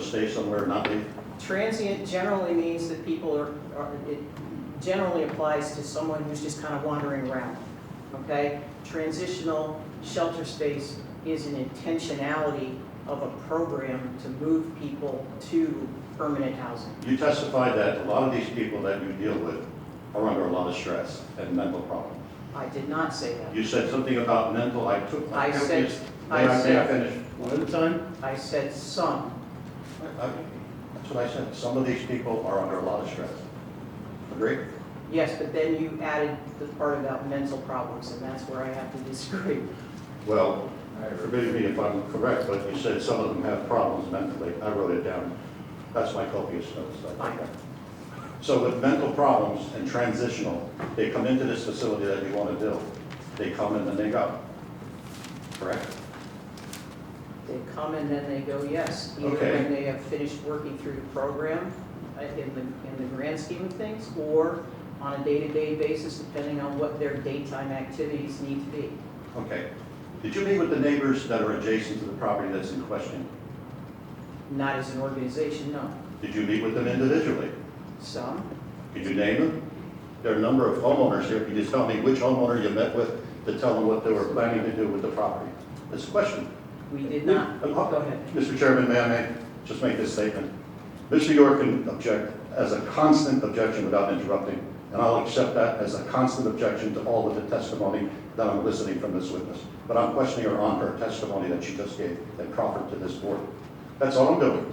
stay somewhere, not leave? Transient generally means that people are, are- it generally applies to someone who's just kind of wandering around, okay? Transitional shelter space is an intentionality of a program to move people to permanent housing. You testified that a lot of these people that you deal with are under a lot of stress and mental problems. I did not say that. You said something about mental, I took. I said- May I I, may I said- finish one at a time? I said some. I- I- That's what I said, some of these people are under a lot of stress. Agree? Yes, but then you added the part about mental problems, and that's where I have to disagree. Well, forgive me if I'm correct, but you said some of them have problems mentally. I wrote it down. That's my copious notes. I think. So with mental problems and transitional, they come into this facility that you want to build. They come and then they go. Correct? They come and then they go, yes, either Okay. when they have finished working through the program uh, in the, in the grand scheme of things, or on a day-to-day basis, depending on what their daytime activities need to be. Okay. Did you meet with the neighbors that are adjacent to the property that's in question? Not as an organization, no. Did you meet with them individually? Some, Could you name them? There are a number of homeowners here. Can you just tell me which homeowner you met with to tell them what they were planning to do with the property? This question. we did not. Uh, Go ahead. Mr. Chairman, may I make, just make this statement? Mr. York can object as a constant objection without interrupting, and I'll accept that as a constant objection to all of the testimony that I'm listening from this witness. But I'm questioning her on her testimony that she just gave and proffered to this board. That's all I'm doing,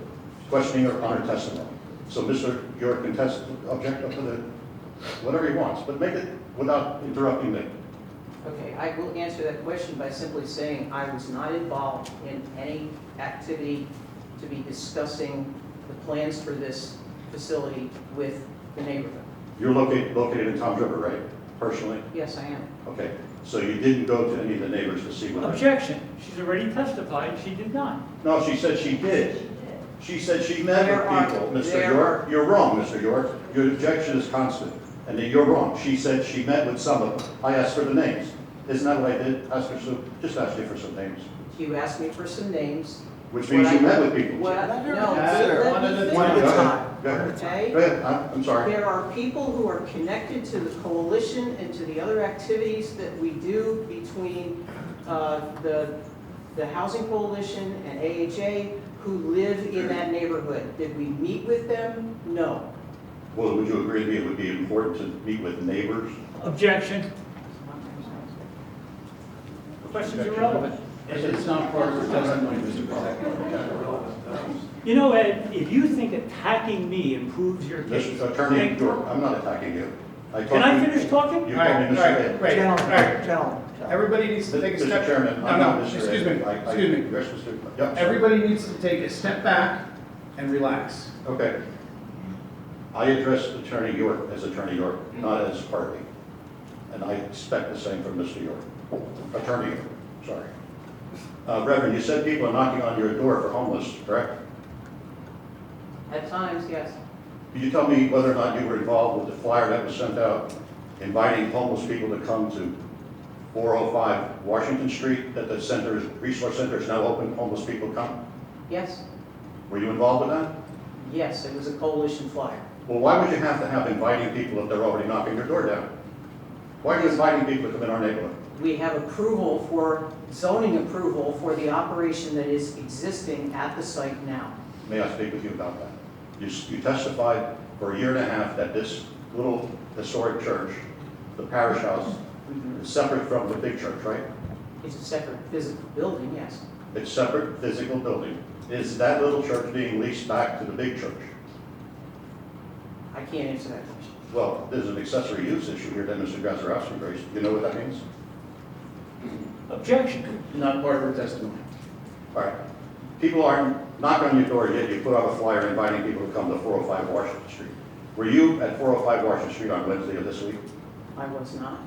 questioning her on her testimony. So Mr. York can test, object up to the, whatever he wants, but make it without interrupting me. Okay, I will answer that question by simply saying I was not involved in any activity to be discussing the plans for this facility with the neighborhood. You're located, located in Tom's River, right, personally? Yes, I am. Okay, so you didn't go to any of the neighbors to see what? Objection, she's already testified, she did not. No, she said she did. She said she met There are- with people, Mr. there York. You're wrong, Mr. York. Your objection is constant, and that you're wrong. She said she met with some of them. I asked for the names. Isn't that what I did? Ask her some, just ask you for some names, You asked me for some names. which means you met with people. What, I- Let her no, answer, let one me at a finish. Go time. ahead. It's Go ahead. Okay? Go ahead, I'm, I'm sorry. There are people who are connected to the coalition and to the other activities that we do between uh, the, the Housing Coalition and AHA who live in that neighborhood. Did we meet with them? No. Well, would you agree with me it would be important to meet with neighbors? Objection, question's irrelevant. It's not part of her testimony, Mr. President. You know, Ed, if you think attacking me improves your case. Mr. Attorney then- York, I'm not attacking you. Can I talked to you- finish talking? You All called right, me all Mr. right, Ed. right, all right. gentlemen. Everybody needs to take a Mr. step. Chairman, I'm No, not no, Mr. Ed. excuse me, I- I- excuse me. Yes, Mr. Yep. Everybody needs to take a step back and relax. Okay. I address Attorney York as Attorney York, not as party. And I expect the same from Mr. York. Attorney York, sorry. Uh, Reverend, you said people are knocking on your door for homeless, correct? At times, yes. Could you tell me whether or not you were involved with the flyer that was sent out inviting homeless people to come to 405 Washington Street, that the center, is- resource center is now open, homeless people come? Yes, Were you involved with that? yes, it was a coalition flyer. Well, why would you have to have inviting people if they're already knocking your door down? Why are you inviting people to come in our neighborhood? We have approval for, zoning approval for the operation that is existing at the site now. May I speak with you about that? You s- you testified for a year and a half that this little historic church, the parish house, is separate from the big church, right? It's a separate physical building, yes. It's separate physical building. Is that little church being leased back to the big church? I can't answer that question. Well, there's an accessory use issue here that Mr. Gazarovski raised. You know what that means? Objection, Not part of her testimony. All right. People aren't knocking on your door yet. You put out a flyer inviting people to come to 405 Washington Street. Were you at 405 Washington Street on Wednesday of this week? I was not,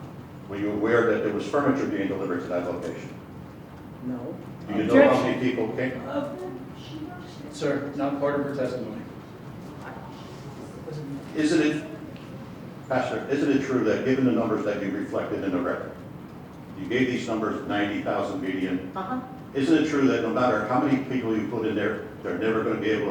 Were you aware that there was furniture being delivered to that location? no. Do you know how Objection. many people came? Sir, not part of her testimony. Isn't it, Pastor, isn't it true that given the numbers that you reflected in the record, you gave these numbers 90,000 median, Uh-huh. isn't it true that no matter how many people you put in there, they're never going to be able to